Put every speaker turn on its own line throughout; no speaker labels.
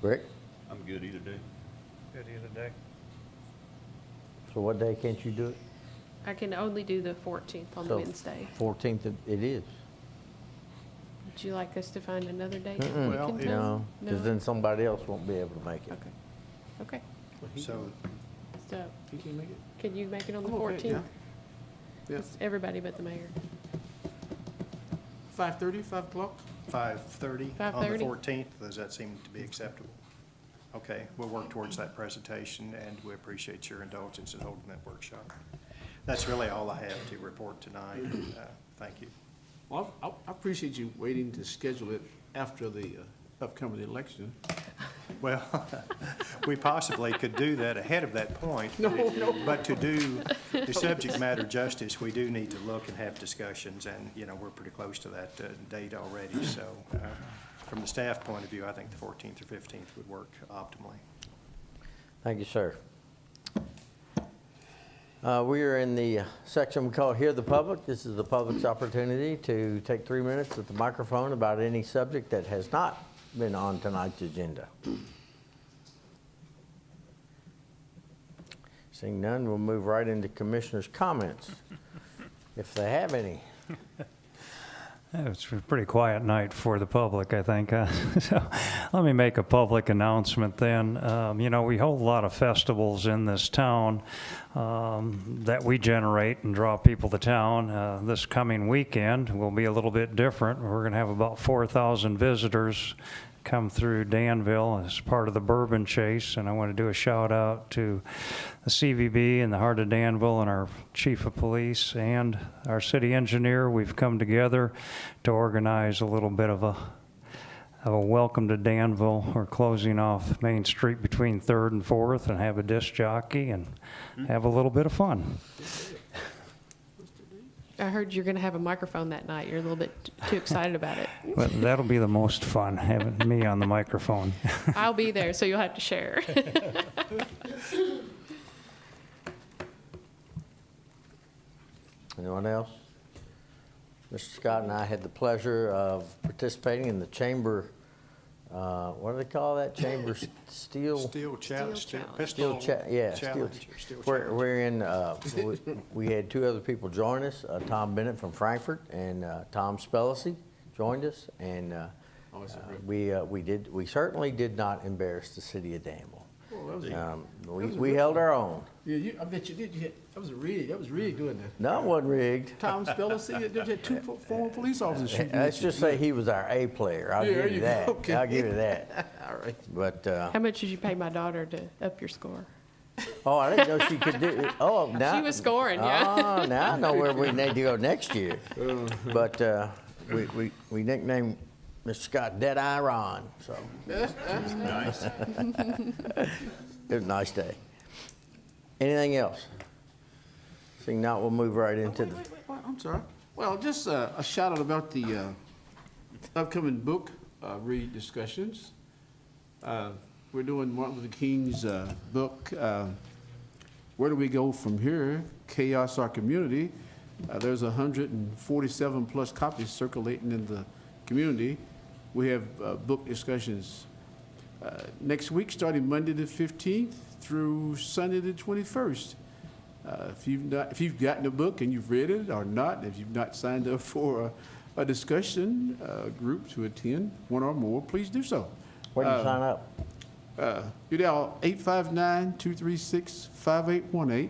Rick,
I'm good either day.
Good either day.
so what day can't you do it?
I can only do the 14th on the
So,
Wednesday.
14th it- it is.
Would you like us to find another date? that we
Mm-mm,
can do?
No,
No?
because then somebody else won't be able to make it.
Okay, okay.
So,
So,
you can make it?
could you make it on the
I'm okay,
14th?
yeah. Yeah.
It's Everybody but the mayor.
Five thirty, five o'clock?
Five thirty on the
5:30.
fourteenth, does that seem to be acceptable? Okay, we'll work towards that presentation, and we appreciate your indulgence in holding that workshop. That's really all I have to report tonight, Uh, thank you.
Well, I, I appreciate you waiting to schedule it after the uh, upcoming election.
Well, we possibly could do that ahead of that point.
No, no.
But to do the subject matter justice, we do need to look and have discussions, and, you know, we're pretty close to that uh, date already, so uh, from the staff point of view, I think the 14th or 15th would work optimally.
Thank you, sir. Uh, We are in the section we call Hear the Public. This is the public's opportunity to take three minutes at the microphone about any subject that has not been on tonight's agenda. Seeing none, we'll move right into commissioners' comments, if they have any.
It was a pretty quiet night for the public, I think. huh? so let me make a public announcement then. Um, you know, we hold a lot of festivals in this town um, that we generate and draw people to town. Uh, this coming weekend will be a little bit different. We're going to have about 4,000 visitors come through Danville as part of the Bourbon Chase, and I want to do a shout out to the CVB and the Heart of Danville and our Chief of Police and our City Engineer. We've come together to organize a little bit of a have a welcome to Danville. We're closing off Main Street between Third and Fourth, and have a disc jockey and have a little bit of fun.
I heard you're going to have a microphone that night. You're a little bit t- too excited about it.
But that'll be the most fun having me on the microphone.
I'll be there, so you'll have to share.
Anyone else? Mr. Scott and I had the pleasure of participating in the chamber, uh, what do they call that? Chamber s- steel?
Steel
chal-
challenge,
Steel challenge.
pistol
Steel cha- yeah, steel,
challenge. or steel
we're,
challenge.
we're in, uh, we, we had two other people join us, uh, Tom Bennett from Frankfurt and, uh, Tom Spellacy joined us, and, uh,
Always a
uh,
great-
we, uh, we did, we certainly did not embarrass the city of Danville.
Oh, that was a-
Um, we,
was a
we
good
held
one.
our own.
Yeah, you, I bet you did, you had, that was really, that was really good. then.
No, it wasn't rigged.
Tom Speller, see, you had two fo- former police officers shooting.
Let's
at you.
just say he was our A player, I'll
Yeah, there
give you
you go.
that,
Okay.
I'll give you that. All right. But, uh,
How much did you pay my daughter to up your score?
oh, I didn't know she could do, oh, now.
was scoring, yeah.
Oh, now I know where we need to go next year.
Uh-huh.
But, uh, we, we, we nicknamed Mr. Scott Deadeye Ron, so. It was a nice day. Anything else? Seeing not, we'll move right into
Wait,
the,
wait, wait, wait, I'm sorry. Well, just uh, a shout out about the uh, upcoming book uh, read discussions. Uh, We're doing Martin Luther King's uh, book, uh, Where Do We Go From Here? Chaos Our Community. Uh, There's 147-plus copies circulating in the community. We have uh, book discussions uh, next week, starting Monday the 15th through Sunday the 21st. Uh, If you've not, if you've gotten the book and you've read it or not, if you've not signed up for a, a discussion uh, group to attend, one or more, please do so.
where do you
Uh,
sign up?
uh, You dial 859-236-5818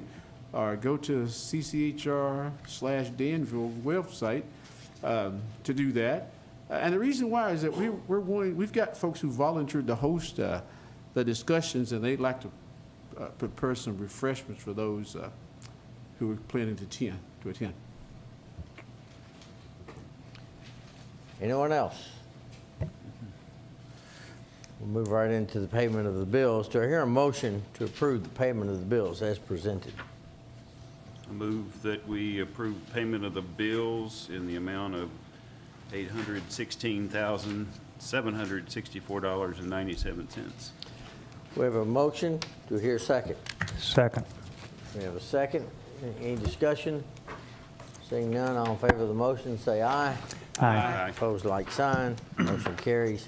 or go to CCHR slash Danville website um, to do that. Uh, And the reason why is that we, we're wanting, we've got folks who volunteered to host uh, the discussions and they'd like to uh, prepare some refreshments for those uh, who are planning to attend, to attend.
Anyone else? We'll move right into the payment of the bills. Do I hear a motion to approve the payment of the bills as presented?
I Move that we approve payment of the bills in the amount of eight hundred sixteen thousand, seven hundred sixty-four dollars and ninety-seven cents.
We have a motion. Do I hear a second?
Second.
We have a second. Any discussion? Seeing none, all in favor of the motion, say aye.
Aye.
Aye.
Opposed, like sign. Motion carries.